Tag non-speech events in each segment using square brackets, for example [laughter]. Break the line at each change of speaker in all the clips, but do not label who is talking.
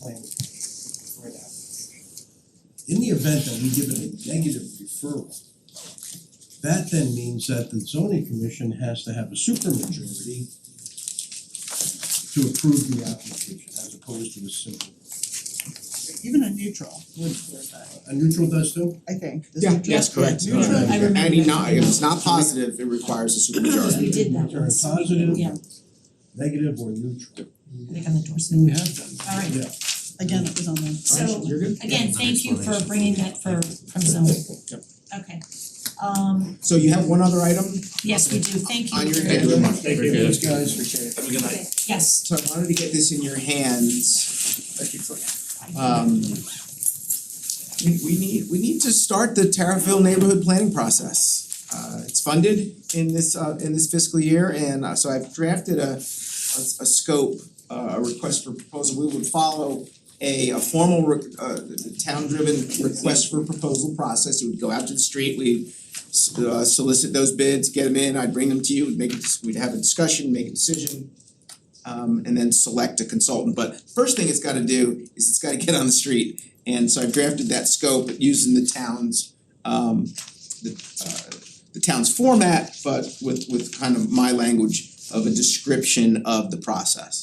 plan for that. In the event that we give it a negative referral, that then means that the zoning commission has to have a supermajority to approve the application as opposed to a simple.
even a neutral would work,
A neutral does too?
I think, does
Yeah,
neutral?
yes, correct.
Yeah, neutral,
I remember
Any
that.
not, if it's not positive, it requires a supermajority.
We did that
Either a
once.
positive,
Yeah.
negative or neutral.
I think on the doors.
And we have done. that.
Alright,
Yeah,
again, it was on the.
so
You're good?
again, thank you for bringing that for from zoning.
Yep.
Okay, um
So you have one other item
yes, we do, thank you
on your
very
agenda?
much.
Thank
you.
Thanks, guys.
Appreciate it.
Okay, yes,
So I wanted to get this in your hands. Thank you for um we we need, we need to start the Tarryville neighborhood planning process. Uh it's funded in this uh in this fiscal year and uh, so I've drafted a a a scope, uh, a request for proposal, we would follow a a formal re- uh town driven request for proposal process, it would go out to the street, we'd s- uh solicit those bids, get them in, I'd bring them to you, we'd make a, dis- we'd have a discussion, make a decision. Um and then select a consultant, but first thing it's gotta do is it's gotta get on the street. And so I've drafted that scope using the town's um the uh the town's format, but with with kind of my language of a description of the process.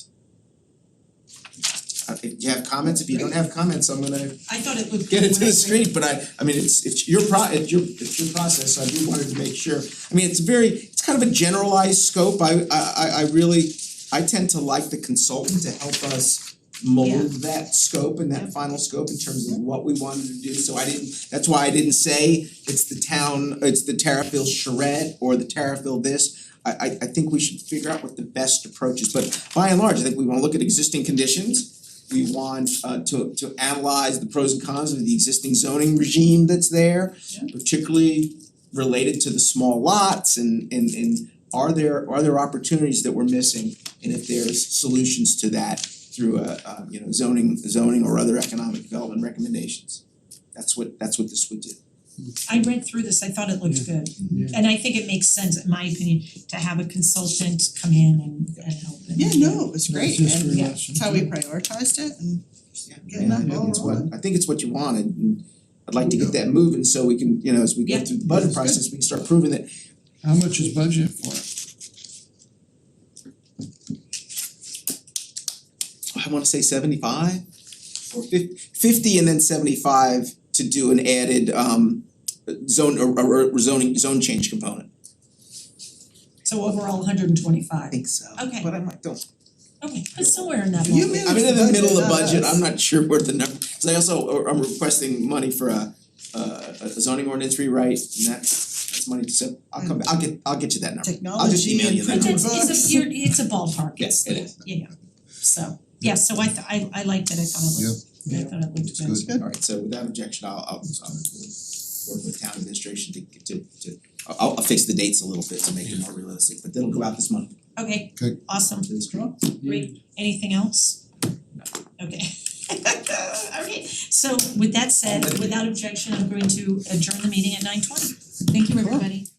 Uh, if you have comments, if you don't have comments, I'm gonna
I thought it looked.
get it to the
great.
street, but I I mean, it's it's your pro, it's your it's your process, so I do wanted to make sure. I mean, it's very, it's kind of a generalized scope, I I I I really, I tend to like the consultant to help us mold that scope and that final scope in terms of what we wanted to do, so I didn't, that's why I didn't say it's the town, it's the Terrafil charrette or the Terrafil this. I I I think we should figure out what the best approach is, but by and large, I think we wanna look at existing conditions. We want uh to to analyze the pros and cons of the existing zoning regime that's there, particularly related to the small lots and and and are there are there opportunities that we're missing? And if there's solutions to that through a uh you know zoning zoning or other economic development recommendations. That's what that's what this would do.
I read through this, I thought it looked good.
Yeah.
And I think it makes sense, in my opinion, to have a consultant come in and and help and.
Yeah, no, it was great,
That's
and
history
yeah,
lesson.
that's how we prioritized it and getting
And I
that
think
ball
it's what,
rolling.
I think it's what you wanted and I'd like to get that moving so we can, you know, as we go
Yeah.
through the budget process, we can start proving that
How much is budget for it?
I wanna say seventy-five or fif- fifty and then seventy-five to do an added um zone or or or zoning zone change component.
So overall, hundred and twenty five.
think so.
Okay.
But I might don't.
Okay, but somewhere in that
You
ballpark.
managed
I'm in the middle of
not
budget,
us.
I'm not sure where the number, cause I also or I'm requesting money for a uh a zoning ordinance rewrite and that's that's money, so I'll come back, I'll get, I'll get you that number. I'll just
Technology
email
and
you the
But
number.
that's, it's
Books.
a, you're, it's a ballpark,
Yes,
it's,
it
yeah,
is.
yeah, so, yeah, so I th- I I liked it, I thought it looked, I thought it looked good.
good.
Alright, so without objection, I'll I'll I'll work with town administration to to to I'll I'll fix the dates a little bit to make it more realistic, but that'll go out this month.
Okay,
Good.
awesome, great, anything else? Okay. [laughs] Okay, so with that said, without objection, I'm going to adjourn the meeting at nine twenty. Thank you, everybody.